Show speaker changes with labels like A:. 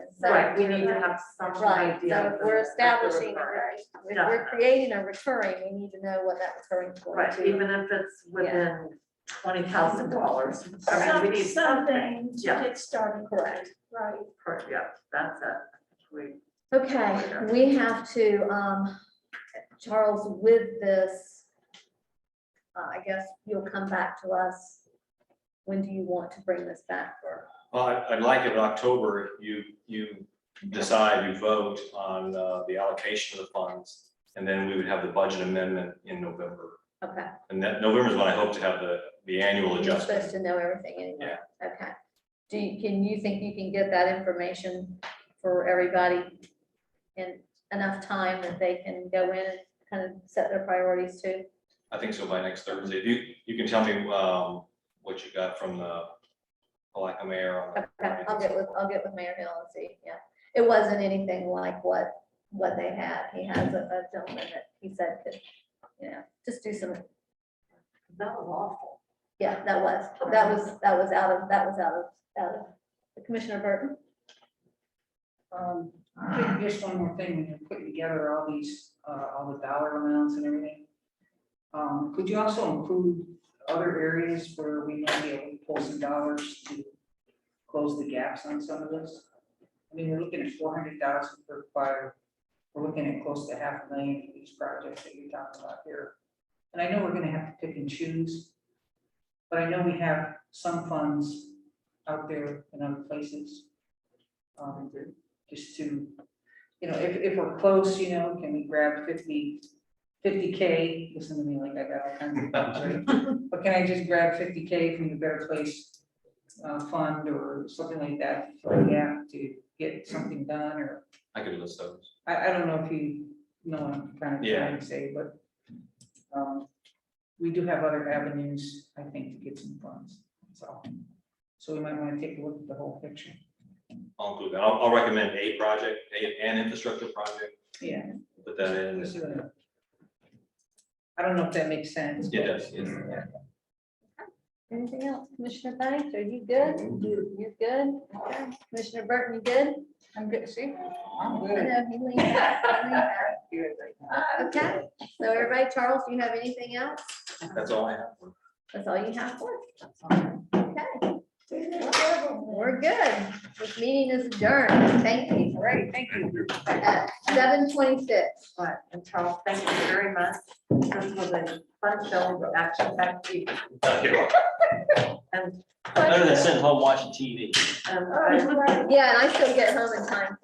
A: So- uh,
B: Right, we need to have some
A: Right,
B: idea.
A: so
B: of the-
A: we're
B: of the
A: establishing, a
B: recurring.
A: re- if we're creating a recurring, we need to know what that's going to.
B: Right, even if it's within twenty thousand dollars. I mean, we
C: Some-
B: need something.
C: Something to
B: yeah.
C: get started.
A: Correct.
C: Right.
B: Per- Yeah, that's it. We,
A: Okay, we have to, um, Charles, with this, uh, I guess you'll come back to us. When do you want to bring this back for?
D: Well, I- I'd like it in October, you, you decide, you vote on uh, the allocation of the funds. And then we would have the budget amendment in November.
A: Okay,
D: And that November is when I hope to have the, the annual
A: you're supposed
D: adjustment.
A: to know everything anyway. Okay. Do you, can you think you can get that information for everybody in enough time that they can go in and kind of set their priorities too?
D: I think so by next Thursday. If You, you can tell me um, what you got from the Palaca mayor on. the-
A: Okay, I'll get with, I'll get with Mayor Hill and see, yeah. It wasn't anything like what, what they had. He has a a gentleman that he said could, you know, just do some,
B: that was awful.
A: yeah, that was, that was, that was out of, that was out of, out of Commissioner Burton.
E: Um, just one more thing, when you're putting together all these, uh, all the dollar amounts and everything. Um, could you also include other areas where we might be able to pull some dollars to close the gaps on some of this? I mean, we're looking at four hundred thousand per fire, we're looking at close to half a million for these projects that you're talking about here. And I know we're gonna have to pick and choose, but I know we have some funds out there in other places. Um, just to, you know, if, if we're close, you know, can we grab fifty, fifty K, listen to me like I got all kinds of things, right? But can I just grab fifty K from the Better Place uh, Fund or something like that, for yeah, to get something done, or,
D: I could list those.
E: I, I don't know if you know what I'm kind of
D: Yeah.
E: trying to say, but um, we do have other avenues, I think, to get some funds, so, so we might wanna take a look at the whole picture,
D: I'll include that. I'll, I'll recommend a project, a, an infrastructure project,
E: yeah.
D: put that in.
E: Let's do it. I don't know if that makes sense.
D: It does, yes.
A: Anything else? Commissioner Banks, are you good? You're good? Okay. Commissioner Burton, you good?
E: I'm good, see? I'm
A: I
E: good.
A: know he leaned back, he leaned back. Okay, so everybody, Charles, do you have anything else?
D: That's all I have.
A: That's all you have for? us. Okay. We're good. This meeting is adjourned. Thank you.
E: Great, thank you.
A: Seven twenty-six.
B: But, and Charles, thank you very much. This was a fun show, action packed evening. And,
D: Better than sitting home watching TV.
B: and I-
A: Oh, Yeah, and I still get home in time